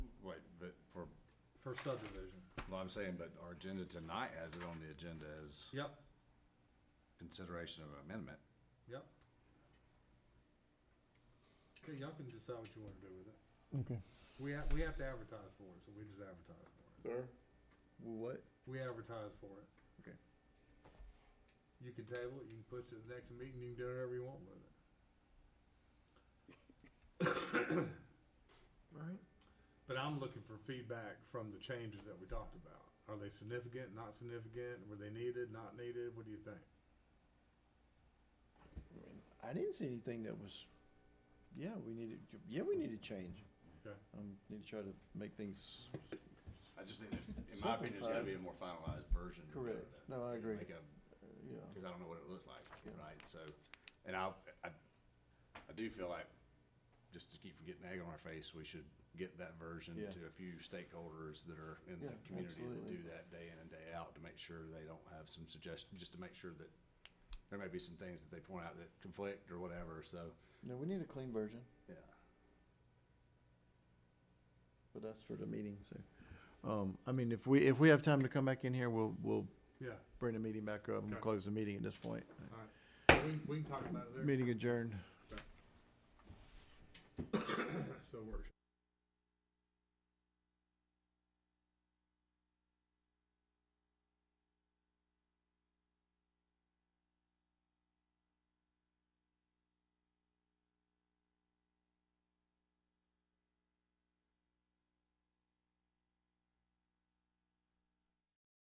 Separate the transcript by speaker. Speaker 1: for subdivision.
Speaker 2: Well, I'm saying, but our agenda tonight has it on the agenda as
Speaker 1: Yep,
Speaker 2: consideration of an amendment.
Speaker 1: yep. Okay, y'all can decide what you wanna do with it.
Speaker 3: Okay.
Speaker 1: We have, we have to advertise for it, so we just advertise for it.
Speaker 4: Sir? What?
Speaker 1: We advertise for it.
Speaker 4: Okay.
Speaker 1: You can table it, you can push it to the next meeting, you can do whatever you want with it.
Speaker 4: Alright.
Speaker 1: But I'm looking for feedback from the changes that we talked about. Are they significant, not significant? Were they needed, not needed? What do you think?
Speaker 4: I mean, I didn't see anything that was, yeah, we needed, yeah, we need to change.
Speaker 1: Okay.
Speaker 4: Um, need to try to make things
Speaker 2: I just think, that, in my opinion, there's gotta be a more finalized version. of
Speaker 4: correct.
Speaker 2: that.
Speaker 4: No, I agree.
Speaker 2: Make a,
Speaker 4: Uh, Yeah.
Speaker 2: because I don't know what it looks like,
Speaker 4: Yeah.
Speaker 2: right? So, and I, I, I do feel like, just to keep from getting egg on our face, we should get that version
Speaker 4: Yeah.
Speaker 2: to a few stakeholders that are in the
Speaker 4: Yeah,
Speaker 2: community that
Speaker 4: absolutely.
Speaker 2: do that day in and day out to make sure they don't have some suggestion, just to make sure that there may be some things that they point out that conflict or whatever, so,
Speaker 4: No, we need a clean version,
Speaker 2: yeah.
Speaker 4: but that's for the meeting, so. Um, I mean, if we, if we have time to come back in here, we'll, we'll
Speaker 1: Yeah,
Speaker 4: bring the meeting back up and
Speaker 1: Okay.
Speaker 4: close the meeting at this point.
Speaker 1: all right. We, we can talk about it there.
Speaker 4: Meeting adjourned.
Speaker 1: So it works.